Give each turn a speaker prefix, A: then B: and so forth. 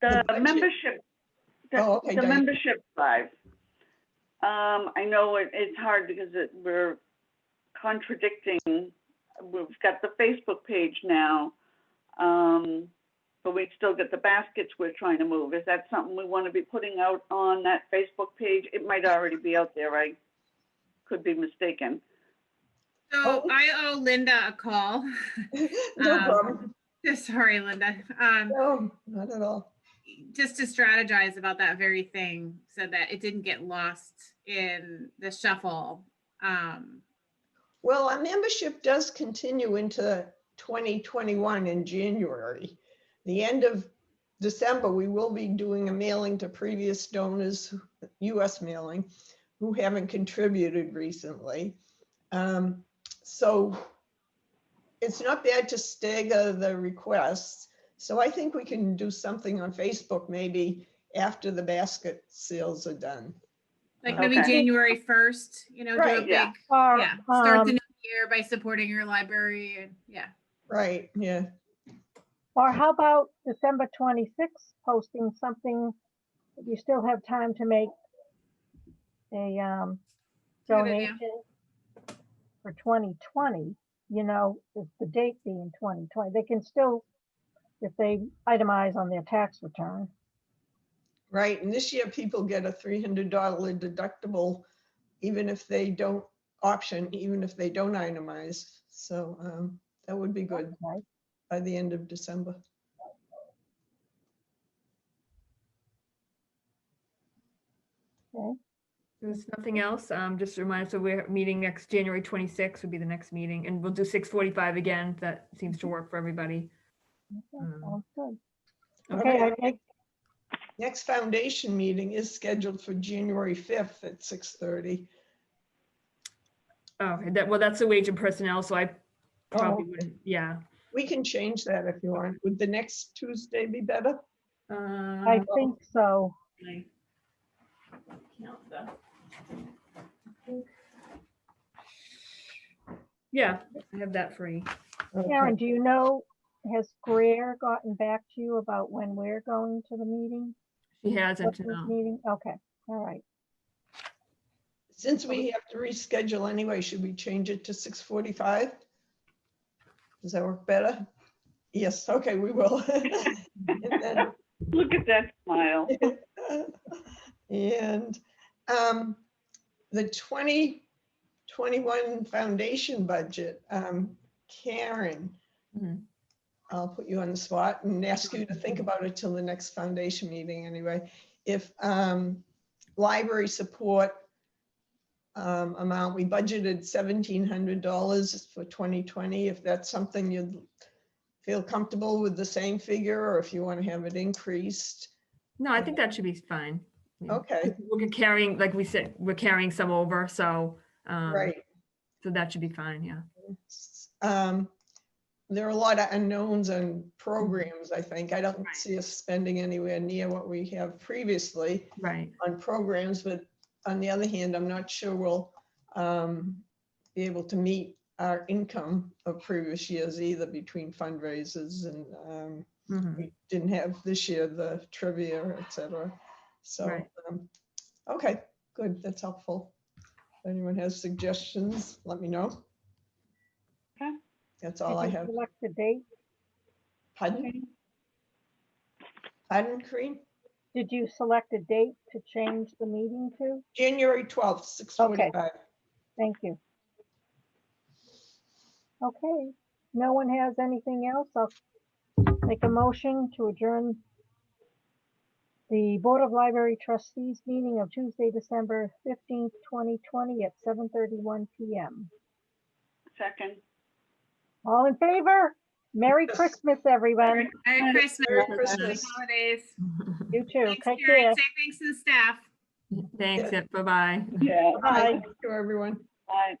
A: The
B: budget.
A: membership,
B: Oh,
A: the
B: okay,
A: the
B: Diane.
A: membership drive. Um, I know it, it's hard because it, we're contradicting, we've got the Facebook page now. Um, but we still get the baskets we're trying to move. Is that something we want to be putting out on that Facebook page? It might already be out there. I could be mistaken.
C: So
B: Oh.
C: I owe Linda a call.
B: No
C: Um,
B: problem.
C: Sorry, Linda. Um,
B: No, not at all.
C: just to strategize about that very thing so that it didn't get lost in the shuffle. Um,
B: Well, our membership does continue into 2021 in January. The end of December, we will be doing a mailing to previous donors, US mailing, who haven't contributed recently. Um, So it's not bad to stagger the requests. So I think we can do something on Facebook maybe after the basket sales are done.
C: like maybe
A: Okay.
C: January 1st, you know, do a
B: Right,
C: big,
A: yeah.
C: yeah,
D: Or,
C: start the
D: um,
C: new year by supporting your library and yeah.
B: Right, yeah.
D: Or how about December 26th, posting something, that you still have time to make a um,
C: Good idea.
D: donation for 2020, you know, with the date being 2020, they can still, if they itemize on their tax return.
B: Right, and this year people get a three hundred dollar deductible, even if they don't option, even if they don't itemize. So um, that would be good
D: okay?
B: by the end of December.
E: There's nothing else. Um, just a reminder, so we're meeting next January twenty-sixth would be the next meeting and we'll do six forty-five again. if That seems
D: Mm-hmm.
E: to work for everybody.
D: Okay,
E: Mm.
D: sounds good. Okay,
B: Okay,
D: I make,
B: next foundation meeting is scheduled for January fifth at six thirty.
E: Okay, Oh, that, well, that's the wage and personnel, so I
B: Oh,
E: probably
B: okay.
E: wouldn't, yeah.
B: We can change that if you want. Would the next Tuesday be better?
D: I
E: Uh,
C: Mm.
D: think so.
E: like- count the- Yeah, I have that free.
D: Karen,
B: Okay.
D: do you know, has Greer gotten back to you about when we're going to the meeting?
E: She um, hasn't,
D: What's this
E: no.
D: Meeting, okay, all right.
B: Since we have to reschedule anyway, should we change it to six forty-five? Does that work better? Yes, okay, we will. And then
A: Look at that smile.
B: And um, the 2021 foundation budget, um, Karen,
E: Mhm.
B: I'll put you on the spot and ask you to think about it till the next foundation meeting anyway. If um, library support um, amount, we budgeted $1,700 for 2020. If that's something you'd feel comfortable with the same figure or if you want to have it increased.
E: No, I think that should be fine. Yeah.
B: Okay,
E: We're carrying, like we said, we're carrying some over, so. um,
B: right.
E: So that should be fine, yeah.
B: s- um, There are a lot of unknowns and programs, I think. I don't
E: Right.
B: see us spending anywhere near what we have previously
E: Right,
B: on programs, but on the other hand, I'm not sure we'll um, be able to meet our income of previous years either between fundraisers and um,
E: mhm,
B: we didn't have this year the trivia, et cetera. So,
E: Right.
B: um, okay, good, that's helpful. If anyone has suggestions, let me know.
A: Okay.
B: That's all I
D: Did you
B: have.
D: Select the date,
B: Pardon? Pardon, Corinne?
D: did you select a date to change the meeting to?
B: January 12th, 6:45.
D: Thank you. Okay, no one has anything else? I'll make a motion to adjourn the Board of Library Trustees meeting of Tuesday, December 15th, 2020 at 7:31 PM.
A: Second.
D: All in favor? Merry
B: Yes.
D: Christmas, everyone.
C: Merry Christmas.
B: Merry
C: Happy
B: Christmas.
C: holidays.
D: You too.
C: Thanks,
D: Take
C: Karen.
D: care.
C: Say thanks to the staff.
E: Thanks, yeah, bye-bye.
A: Yeah.
B: Bye.
D: Bye.
B: Thank you, everyone.
A: Bye.